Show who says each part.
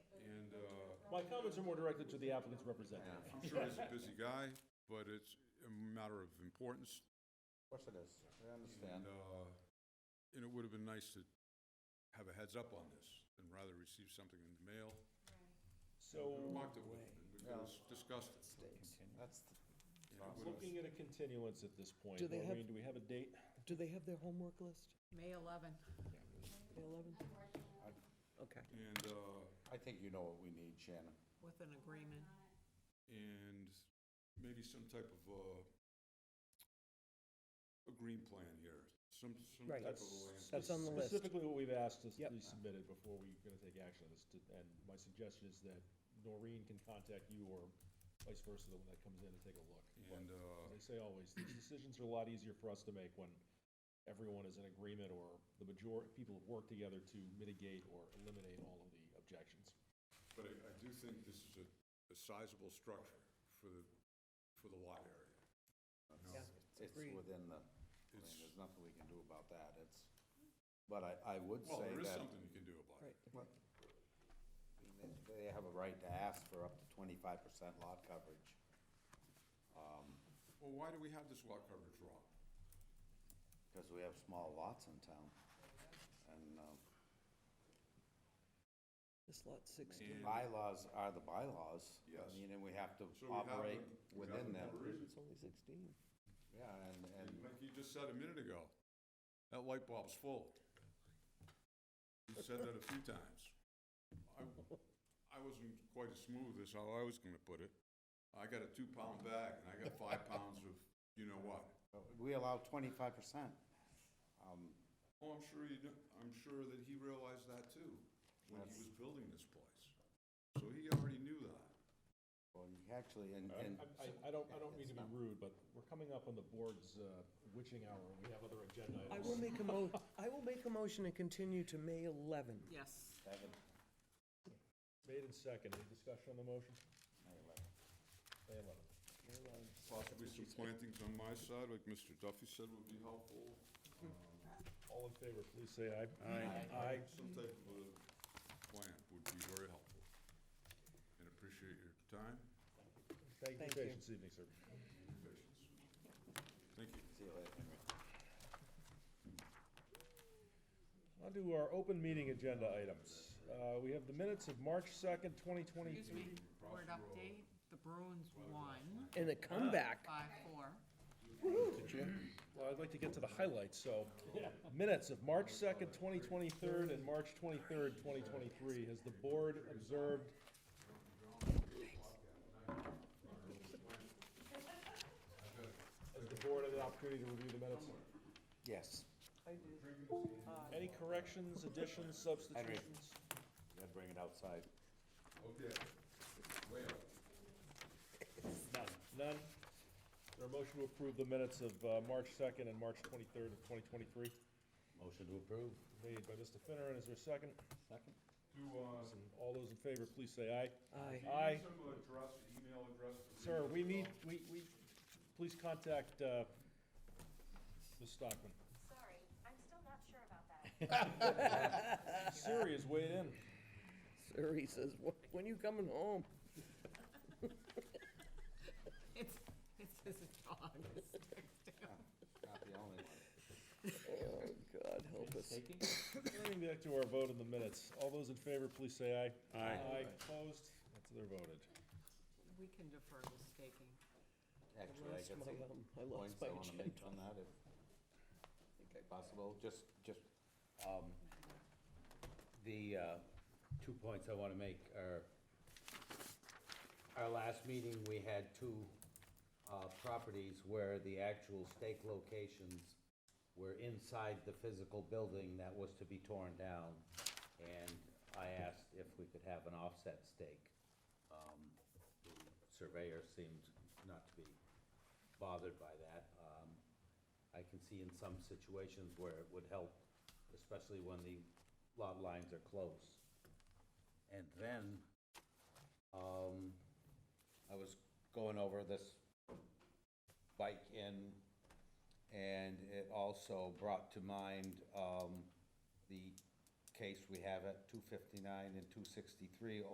Speaker 1: my comments are more directed to the applicant's representative.
Speaker 2: uh, I'm sure he's a busy guy, but it's a matter of importance.
Speaker 3: Of course it is, I
Speaker 2: And,
Speaker 3: understand.
Speaker 2: uh, and it would have been nice to have a heads up on this and rather receive something in the mail.
Speaker 1: So,
Speaker 2: Marked it with, we could have discussed it.
Speaker 3: That's, the-
Speaker 2: And it would have-
Speaker 1: looking at a continuance at this point,
Speaker 4: Do they have-
Speaker 1: Maureen, do we have a date?
Speaker 4: Do they have their homework list?
Speaker 5: May 11.
Speaker 4: The 11th? Okay.
Speaker 2: And, uh,
Speaker 3: I think you know what we need, Shannon.
Speaker 5: With an agreement.
Speaker 2: and maybe some type of, uh, a green plan here, some, some
Speaker 4: Right.
Speaker 2: type of a land.
Speaker 4: That's on the list.
Speaker 1: Specifically what we've asked is to
Speaker 4: Yep.
Speaker 1: be submitted before we're gonna take action on this, to- and my suggestion is that Noreen can contact you or vice versa, the one that comes in and take a look.
Speaker 2: And, uh,
Speaker 1: As I say always, these decisions are a lot easier for us to make when everyone is in agreement or the major, people have worked together to mitigate or eliminate all of the objections.
Speaker 2: But I, I do think this is a, a sizable structure for the, for the lot area.
Speaker 4: Yeah,
Speaker 3: It's
Speaker 4: agreed.
Speaker 3: within the, I mean,
Speaker 2: It's-
Speaker 3: there's nothing we can do about that, it's, but I, I would
Speaker 2: Well,
Speaker 3: say
Speaker 2: there is
Speaker 3: that.
Speaker 2: something you can do about it.
Speaker 4: Right.
Speaker 3: Well, they- They have a right to ask for up to twenty-five percent lot coverage.
Speaker 2: Well, why do we have this lot coverage wrong?
Speaker 3: Because we have small lots in town. And uh,
Speaker 4: This lot 16.
Speaker 2: And-
Speaker 3: bylaws are the bylaws.
Speaker 2: Yes.
Speaker 3: I mean, and we have to
Speaker 2: So we have
Speaker 3: operate
Speaker 2: them- we have
Speaker 3: within
Speaker 2: them
Speaker 3: them.
Speaker 2: already.
Speaker 4: It's only 16.
Speaker 3: Yeah, and,
Speaker 2: And
Speaker 3: and
Speaker 2: like you just said a minute ago, that light bulb's full. You said that a few times. I, I wasn't quite as smooth as how I was gonna put it. I got a two-pound bag, and I got five pounds of, you know what?
Speaker 3: we allow twenty-five percent.
Speaker 2: Oh, I'm sure you, do- I'm sure that he realized that too, when he was building this place. So he already knew that.
Speaker 3: Well, you actually, and,
Speaker 1: I,
Speaker 3: and
Speaker 1: I- I don't, I don't mean to be rude, but we're coming up on the board's uh, witching hour, and we have other agenda
Speaker 4: I will
Speaker 1: items.
Speaker 4: make a mo, I will make a motion to continue to May 11.
Speaker 5: Yes.
Speaker 3: Evan,
Speaker 1: Made and second, any discussion on the motion? May eleventh.
Speaker 2: Possibly some plantings on my side, like Mr. Duffy said would be helpful.
Speaker 1: All in favor, please say aye. Aye. Aye.
Speaker 2: Some type of a plan would be very helpful. And appreciate your time
Speaker 1: Thank you
Speaker 4: Thank
Speaker 1: for your
Speaker 4: you.
Speaker 1: patience this evening, sir.
Speaker 2: and patience. Thank you.
Speaker 3: see you later.
Speaker 1: On to our open meeting agenda items. Uh, we have the minutes of March second, twenty twenty-two.
Speaker 5: Excuse me, board update, the Bruins won
Speaker 4: And a comeback.
Speaker 5: 5-4.
Speaker 1: Well, I'd like to get to the highlights, so minutes of March 2nd, 2023 and March 23rd, 2023. Has the board observed? Has the board had an opportunity to review the minutes?
Speaker 3: Yes,
Speaker 1: Any corrections, additions, substitutions?
Speaker 3: gotta bring it outside.
Speaker 2: Okay. Way up.
Speaker 1: None. None? Is there a motion to approve the minutes of uh, March 2nd and March 23rd of 2023?
Speaker 3: Motion to approve.
Speaker 1: Made by Mr. Finner, and is there a second?
Speaker 3: Second.
Speaker 2: Do, uh,
Speaker 1: And all those in favor, please say aye.
Speaker 4: Aye.
Speaker 1: Aye.
Speaker 2: some address, email address?
Speaker 1: Sir, we need, we, we, please contact, uh, Ms. Stockman.
Speaker 6: Sorry, I'm still not sure about that.
Speaker 1: Siri is weighed in.
Speaker 4: Sir, he says, "Wh- when you coming home?
Speaker 5: It's, it's his dog.
Speaker 3: Not the only one.
Speaker 4: Oh, God, help us.
Speaker 1: Turning back to our vote in the minutes. All those in favor, please say aye. Aye. Aye, opposed? That's their voted.
Speaker 5: We can defer the staking.
Speaker 3: Actually, I
Speaker 4: lost
Speaker 3: got
Speaker 4: my, um,
Speaker 3: some
Speaker 4: I lost
Speaker 3: points
Speaker 4: my
Speaker 3: I wanna make on that if possible, just, just, um,
Speaker 7: The uh, two points I want to make are, our last meeting, we had two uh, properties where the actual stake locations were inside the physical building that was to be torn down, and I asked if we could have an offset stake. Um, the Surveyor seemed not to be bothered by that. Um, I can see in some situations where it would help, especially when the lot lines are close. And then, um,
Speaker 3: I was going over this bike in, and it also brought to mind, um, the case we have at two fifty-nine and two sixty-three